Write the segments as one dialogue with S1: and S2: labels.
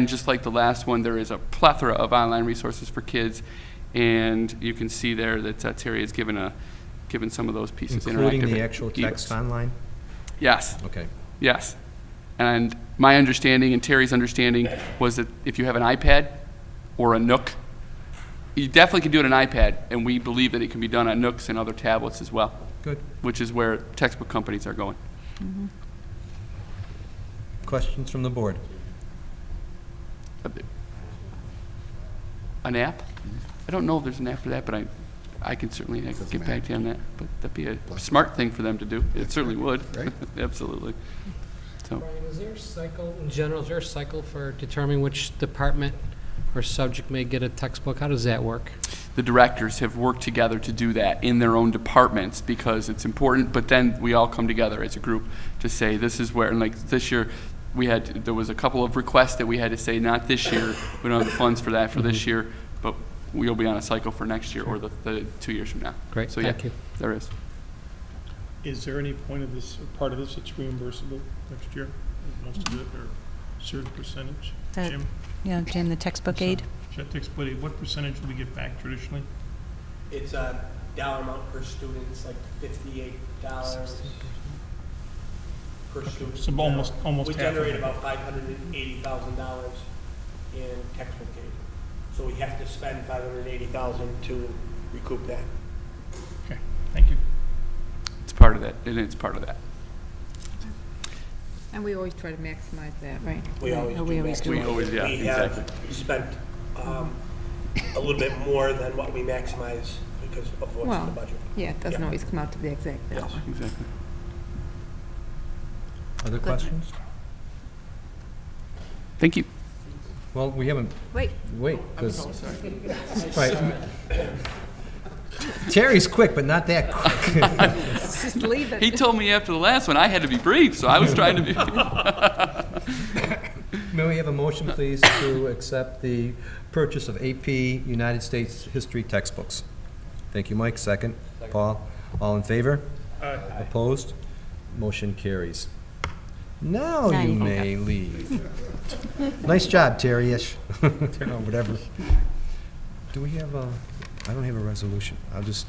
S1: And just like the last one, there is a plethora of online resources for kids, and you can see there that uh, Terry has given a, given some of those pieces.
S2: Including
S1: interactive
S2: the actual text
S1: ebooks.
S2: online?
S1: Yes,
S2: Okay.
S1: yes. And my understanding and Terry's understanding was that if you have an iPad or a Nook, you definitely can do it on iPad, and we believe that it can be done on Nooks and other tablets as well,
S2: Good.
S1: which is where textbook companies are going.
S2: Questions from the board?
S1: An app? I don't know if there's an app for that, but I, I can certainly I can get back to you on that. But that'd be a smart thing for them to do. It certainly would.
S3: Right.
S1: Absolutely. So,
S4: Brian, is there a cycle, in general, is there a cycle for determining which department or subject may get a textbook? How does that work?
S1: the directors have worked together to do that in their own departments because it's important, but then we all come together as a group to say, this is where, and like this year, we had, there was a couple of requests that we had to say, not this year, we don't have the funds for that for this
S3: Mm-hmm.
S1: year, but we'll be on a cycle for next year or the, the two years from now.
S4: Great,
S1: So, yeah,
S4: thank you.
S1: There is.
S5: Is there any point of this, or part of this that's reimbursable next year? Most of it, or certain percentage?
S6: The-
S5: Jim?
S6: Yeah, Jim, the textbook aid.
S5: Should take split it. what percentage do we get back traditionally?
S7: It's a dollar amount per student, it's like fifty-eight dollars per student.
S5: So almost- almost
S7: We
S5: half of
S7: generate
S5: it.
S7: about five hundred and eighty thousand dollars in textbook aid. So we have to spend five hundred and eighty thousand to recoup that.
S5: Okay, thank you.
S1: It's part of that, and it's part of that.
S8: And we always try to maximize that, right?
S7: We always
S6: Oh,
S7: do.
S6: we always
S7: that.
S6: do.
S1: We always- yeah,
S7: We have
S1: exactly.
S7: Spent, um, a little bit more than what we maximize because of what's in the
S8: Well,
S7: budget.
S8: yeah, it doesn't
S7: Yeah.
S8: always come out to the exact
S7: Yes.
S8: dollar.
S1: Exactly.
S2: Other questions?
S1: Thank you.
S2: Well, we haven't,
S8: Wait,
S2: wait, because. Terry's quick, but not that quick.
S8: just leave
S1: He
S8: it.
S1: told me after the last one I had to be brief, so I was trying to be.
S2: May we have a motion, please, to accept the purchase of AP United States History textbooks? Thank you, Mike. Second. Paul, all in favor? Opposed? Motion carries. Now
S6: Now
S2: you
S6: you can
S2: may leave. Nice job, Terry-ish, or whatever. Do we have a, I don't have a resolution. I'll just,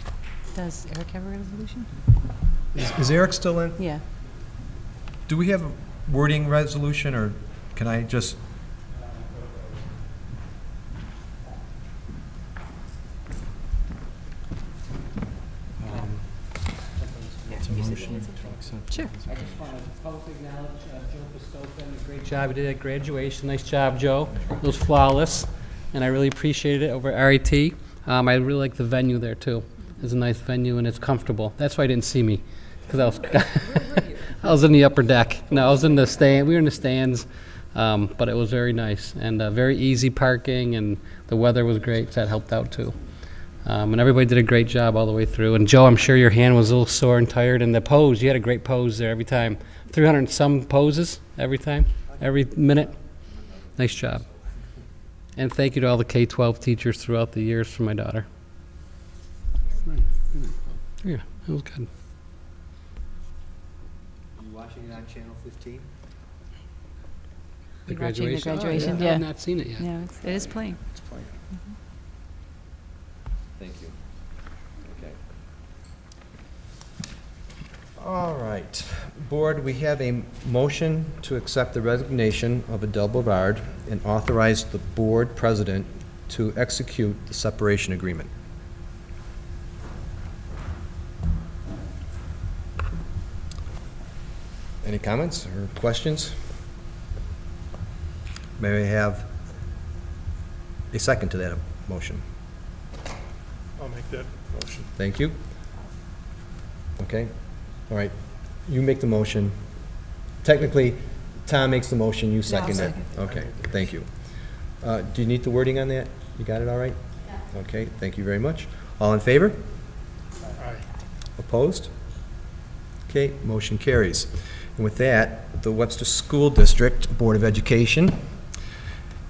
S6: Does Eric have a resolution?
S2: is is Eric still in?
S6: Yeah.
S2: Do we have a wording resolution, or can I just? It's a motion to accept.
S6: Sure.
S4: I just want to publicly acknowledge uh, Joe Pistoka, the great job he did at graduation. Nice job, Joe. It was flawless, and I really appreciated it over at RIT. Um, I really like the venue there, too. It's a nice venue, and it's comfortable. That's why you didn't see me, because I was, I was in the upper deck. No, I was in the stand, we were in the stands, um, but it was very nice, and uh, very easy parking, and the weather was great, so that helped out, too. Um, and everybody did a great job all the way through. And Joe, I'm sure your hand was a little sore and tired. And the pose, you had a great pose there every time. 300 and some poses every time, every minute. Nice job. And thank you to all the K 12 teachers throughout the years for my daughter. Yeah, it was good.
S9: You watching it on Channel 15?
S6: You're watching the graduation?
S4: I
S6: Yeah.
S4: have Oh, not seen it yet.
S6: No, it's- it is playing.
S9: It's playing.
S2: Mm-hmm.
S9: Thank you. Okay.
S2: All right. Board, we have a motion to accept the resignation of Adele Bovard and authorize the board president to execute the separation agreement. Any comments or questions? May we have a second to that motion?
S5: I'll make that motion.
S2: Thank you. Okay, all right, you make the motion. Technically, Tom makes the motion, you second it.
S9: second.
S2: Okay, thank you. Uh, Do you need the wording on that? You got it all right? Yeah. Okay, thank you very much. All in favor?
S5: Aye.
S2: Opposed? Okay, motion carries. And with that, the Webster School District Board of Education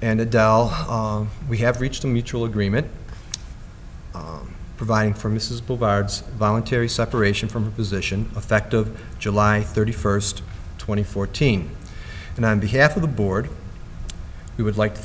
S2: and Adele, um, we have reached a mutual agreement um, providing for Mrs. Bouvard's voluntary separation from her position effective July 31st, 2014. And on behalf of the board, we we would like to